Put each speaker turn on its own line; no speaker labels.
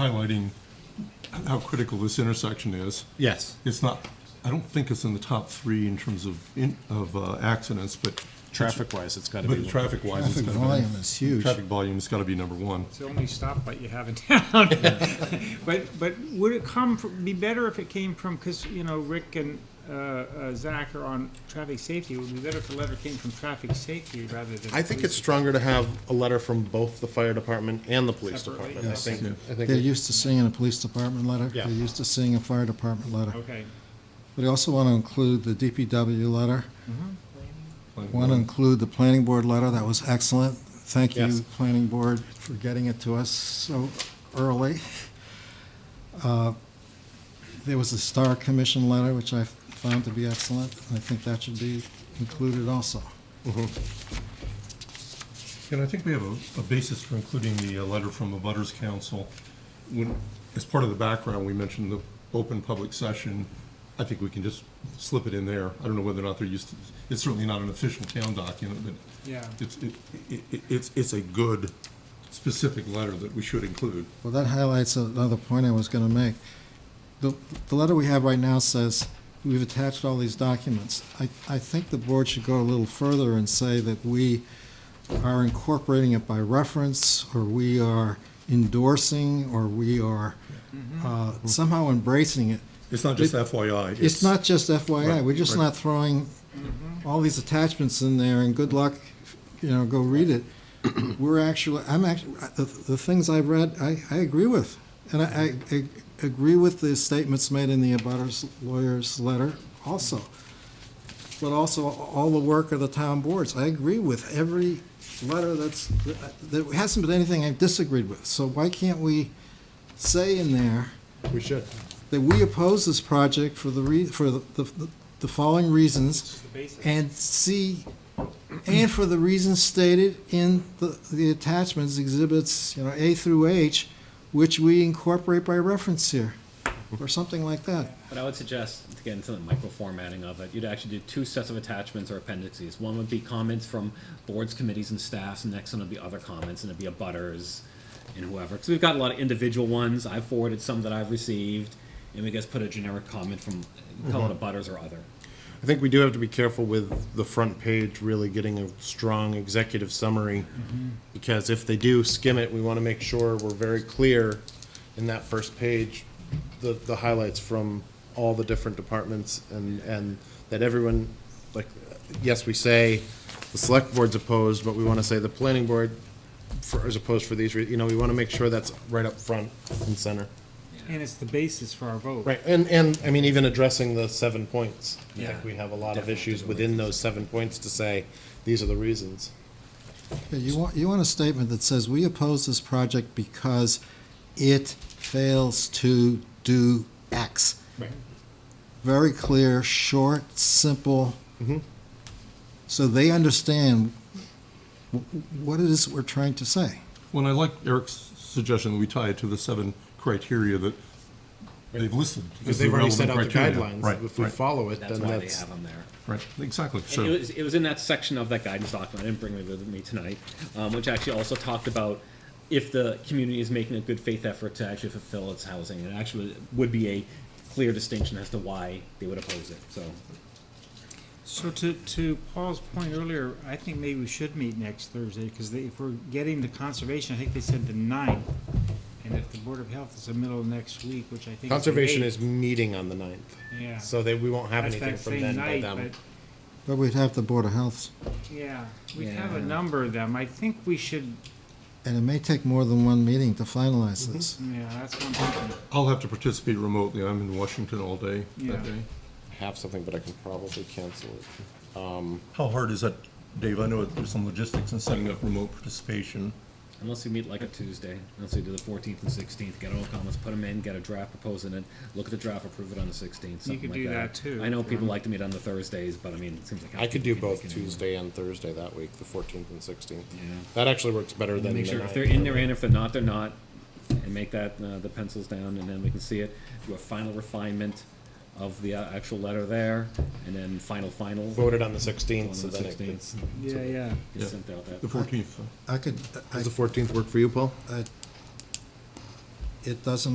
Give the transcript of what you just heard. highlighting how critical this intersection is.
Yes.
It's not, I don't think it's in the top three in terms of, in- of uh, accidents, but.
Traffic-wise, it's got to be.
But traffic-wise, it's
Traffic
gotta be.
volume is huge.
Traffic volume's gotta be number one.
It's the only stoplight you have in town. But, but would it come, fr- be better if it came from, because, you know, Rick and uh, uh, Zach are on traffic safety, it would be better if the letter came from traffic safety rather than.
I think
police.
it's stronger to have a letter from both the fire department and the police
Separately.
department. I think, I think,
They're
it-
used to seeing a police department letter.
Yeah.
They're used to seeing a fire department letter.
Okay,
But I also want to include the DPW letter. Want to include the planning board letter. That was excellent. Thank you,
Yes.
planning board, for getting it to us so early. Uh, There was a Star Commission letter, which I found to be excellent. and I think that should be included also.
And I think we have a, a basis for including the uh, letter from the Butters Council. When, as part of the background, we mentioned the open public session. I think we can just slip it in there. I don't know whether or not they're used to, it's certainly not an official town document, but
yeah.
it's, it, it, it's, it's a good specific letter that we should include.
Well, that highlights another point I was going to make. The, the letter we have right now says, we've attached all these documents. I, I think the board should go a little further and say that we are incorporating it by reference, or we are endorsing, or we are uh, somehow embracing it.
It's not just FYI.
It's not just FYI,
Right,
we're just
right.
not throwing all these attachments in there and good luck, you know, go read it. We're actually, I'm actually, the, the things I've read, I, I agree with. And I, I, I agree with the statements made in the abutters lawyer's letter also. But also all the work of the town boards. I agree with every letter that's, there hasn't been anything I've disagreed with. So why can't we say in there,
we should.
that we oppose this project for the rea, for the, the, the following reasons,
The basic.
and see, and for the reasons stated in the, the attachments, exhibits, you know, A through H, which we incorporate by reference here, or something like that.
But I would suggest, to get into the micro formatting of it, you'd actually do two sets of attachments or appendices. One would be comments from boards, committees, and staffs, and the next one would be other comments, and it'd be a butters and whoever. Because we've got a lot of individual ones. I forwarded some that I've received, and we just put a generic comment from, call it
Mm-hmm.
a butters or other.
I think we do have to be careful with the front page really getting a strong executive summary. Because if they do skim it, we want to make sure we're very clear in that first page, the, the highlights from all the different departments and, and that everyone, like, yes, we say the select board's opposed, but we want to say the planning board for, is opposed for these, rea- you know, we want to make sure that's right up front and center.
And it's the basis for our vote.
Right, and, and, I mean, even addressing the seven points, I
Yeah.
think we have a lot of
Definitely
issues
do
within those seven points to say, these are the reasons.
Yeah, You want, you want a statement that says, we oppose this project because it fails to do X. Very clear, short, simple. So they understand wh- what it is we're trying to say.
Well, and I like Eric's suggestion that we tie it to the seven criteria that they've listed.
Because
as the
they've already set
relevant
out the
criteria.
guidelines,
Right,
if we
right,
follow it,
That's
then
why they
that's,
have them there.
Right, exactly,
And it
so,
was, it was in that section of that guidance document, I didn't bring it with me tonight, um, which actually also talked about if the community is making a good faith effort to actually fulfill its housing, it actually would be a clear distinction as to why they would oppose it, so.
So to, to Paul's point earlier, I think maybe we should meet next Thursday, because if we're getting to conservation, I think they said the ninth. And if the Board of Health is the middle of next week, which I think. the
conservation
eighth,
is meeting on the ninth.
Yeah.
So that we won't have
That's
anything
that
from
same
then by
night,
them.
but
But we'd have the Board of Health,
Yeah, we have a
Yeah.
number of them. I think we should,
and it may take more than one meeting to finalize this.
yeah, that's one thing.
I'll have to participate remotely, I'm in Washington all day
Yeah.
that day.
I Have something, but I can probably cancel it.
How hard is that, Dave? I know there's some logistics in setting up remote participation.
Unless we meet like a Tuesday, unless we do the fourteenth and sixteenth, get all comments, put them in, get a draft proposing it, look at the draft, approve it on the sixteenth,
You
something
could
like that.
do that too,
I know
if you
people
want.
like to meet on the Thursdays, but I mean, it seems like.
I could do
we can
both
make it anyway.
Tuesday and Thursday that week, the fourteenth and sixteenth.
Yeah.
That actually works better
And
than the
make sure if they're
ninth.
in, they're in. If they're not, they're not. And make that, uh, the pencils down, and then we can see it. Do a final refinement of the uh, actual letter there, and then final, final.
Voted on the sixteenth, so
On the
then it
16th.
gets.
Yeah, yeah.
It's sent out that.
The fourteenth,
I could, I
Does the fourteenth work for you, Paul?
I- it doesn't